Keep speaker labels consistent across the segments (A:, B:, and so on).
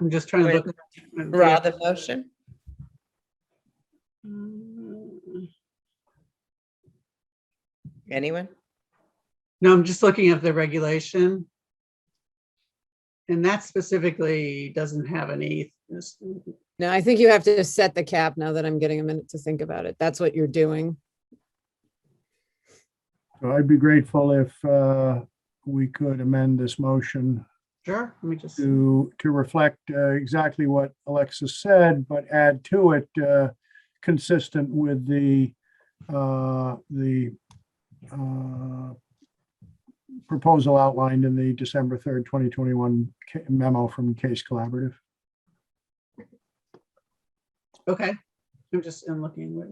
A: I'm just trying to
B: Wait.
A: look. at-
B: Ra, the motion?
A: No,
B: Anyone?
A: I'm just looking at the regulation. And that specifically doesn't have any,
C: No, I think you have to set the cap now that I'm getting a minute to think about it. That's what you're doing.
D: So I'd be grateful if uh, we could amend this motion
A: sure, let me just,
D: to, to reflect uh, exactly what Alexis said, but add to it uh, consistent with the, uh, the uh, proposal outlined in the December 3rd, 2021 ca- memo from Case Collaborative.
A: okay. I'm just, I'm looking. what-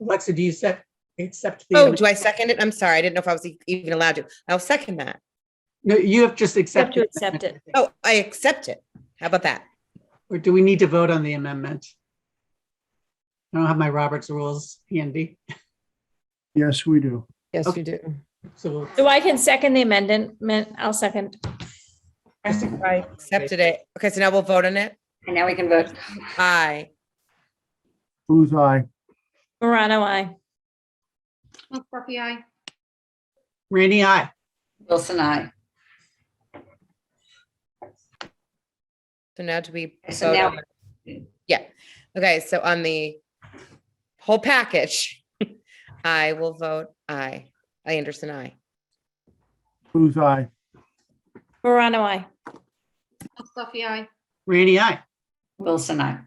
A: Alexa, do you accept, accept the?
B: Oh, do I second it? I'm sorry. I didn't know if I was e- even allowed to. I'll second that.
A: No, you have just
E: have to
A: accepted.
E: accept it.
B: Oh, I accept it. How about that?
A: Or do we need to vote on the amendment? I don't have my Roberts rules handy,
D: Yes, we do.
C: Yes,
A: Okay.
C: you do.
A: so we'll
E: So I can second the amendment. I'll second.
B: I accepted it. Okay, so now we'll vote on it.
F: And now we can vote.
B: Aye.
D: Booth, aye.
E: Morano, I.
F: Scorpio, aye.
A: Rainy, aye.
F: Wilson, aye.
B: So now do we?
F: So
B: vote
F: now-
B: on the- Yeah. Okay, so on the whole package, I will vote aye. I Anderson, aye.
D: Booth, aye.
E: Morano, I.
F: Scorpio, aye.
A: Rainy, aye.
F: Wilson, aye.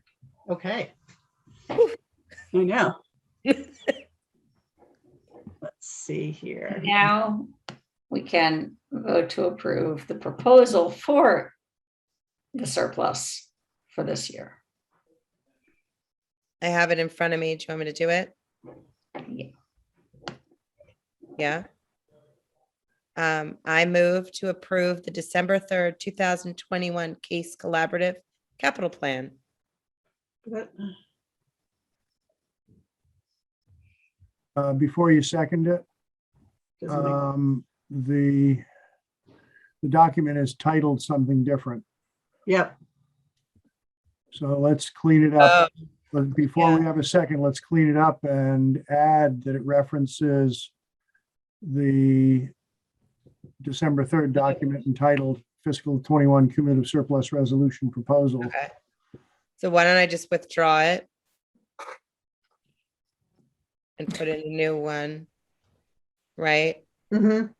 A: Okay. I know. Let's see here.
F: Now we can vote to approve the proposal for the surplus for this year.
B: I have it in front of me. Do you want me to do it?
F: Yeah.
B: Yeah. Um, I move to approve the December third, two thousand twenty-one case collaborative capital plan.
A: But-
D: Uh, Before you second it,
A: doesn't make-
D: um, the, the document is titled something different.
A: Yep,
D: So let's clean it up. But before we
B: Oh, yeah.
D: have a second, let's clean it up and add that it references the December 3rd document entitled fiscal 21 cumulative surplus resolution proposal.
B: Okay. So why don't I just withdraw it? And put in a new one, right?
A: mhm,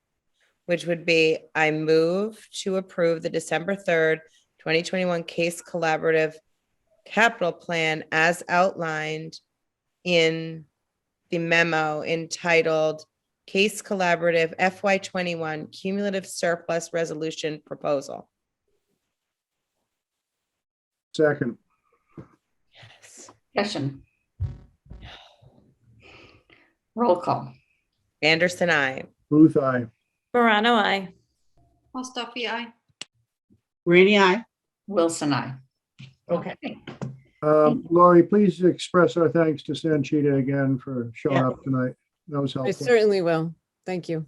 B: Which would be, I move to approve the December third, twenty twenty-one case collaborative capital plan as outlined in the memo entitled Case Collaborative FY twenty-one Cumulative Surplus Resolution Proposal.
D: Second,
F: Discussion. Roll call.
B: Anderson, I.
D: Booth, aye.
E: Morano, I.
F: Scorpio, aye.
A: rainy, aye.
F: Wilson, aye.
A: Okay.
D: Um, Laurie, please express our thanks to Sanchita again for showing
C: Yeah.
D: up tonight. That was
C: I
D: helpful.
C: certainly will. Thank you.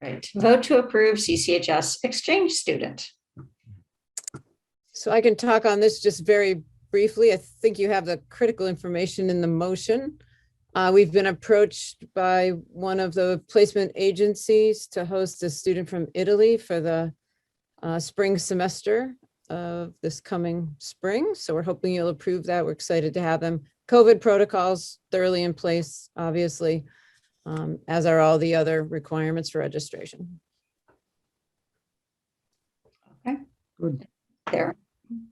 F: Right. Vote to approve CCHS exchange student.
C: So I can talk on this just very briefly. I think you have the critical information in the motion. Uh, we've been approached by one of the placement agencies to host a student from Italy for the uh, spring semester of this coming spring. So we're hoping you'll approve that. We're excited to have them. COVID protocols thoroughly in place, obviously, um, as are all the other requirements for registration.
F: There,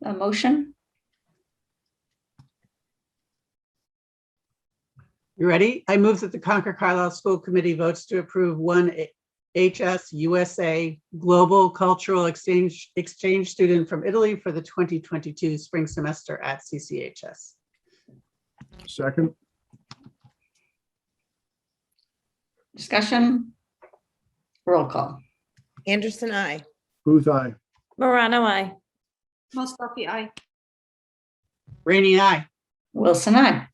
F: a motion?
A: You ready? I move that the Concord Carlisle School Committee votes to approve one A- HS USA Global Cultural Exchange, Exchange student from Italy for the 2022 spring semester at CCHS.
D: Second,
F: Discussion? Roll call.
B: Anderson, I.
D: Booth, aye.
E: Morano, I.
F: Scorpio, aye.
A: Rainy, aye.
F: Wilson, aye.